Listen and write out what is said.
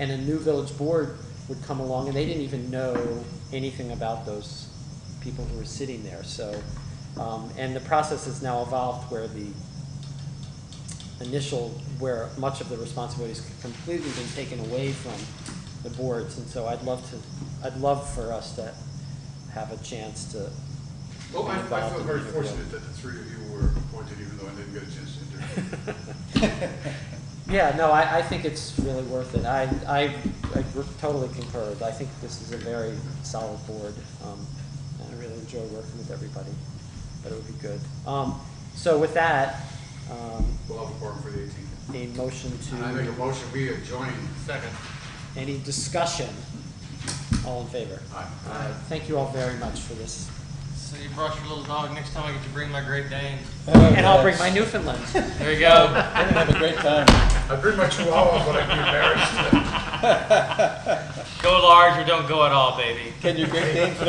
And a new village board would come along, and they didn't even know anything about those people who were sitting there, so. Um, and the process has now evolved where the initial, where much of the responsibility has completely been taken away from the boards, and so I'd love to, I'd love for us to have a chance to. Well, Oh, I, I involved feel in very the- fortunate that the three of you were appointed, even though I didn't get a chance to interview. Yeah, no, I, I think it's really worth it. I, I, I totally concur. I think this is a very solid board. Um, and I really enjoy working with everybody, but it would be good. Um, so with that, um, We'll have a forum for the eighteenth. a motion And I make a to, motion, we adjourn. Second. any discussion? All in favor? Aye. All right, thank you all very much for this. So you brought your little dog. Next time I get to bring my Great Dane. And I'll bring my Newfoundland. There you go. We're gonna have a great time. I pretty much chihuahua, but I'd be embarrassed. Go large or don't go at all, baby. Can you great name for the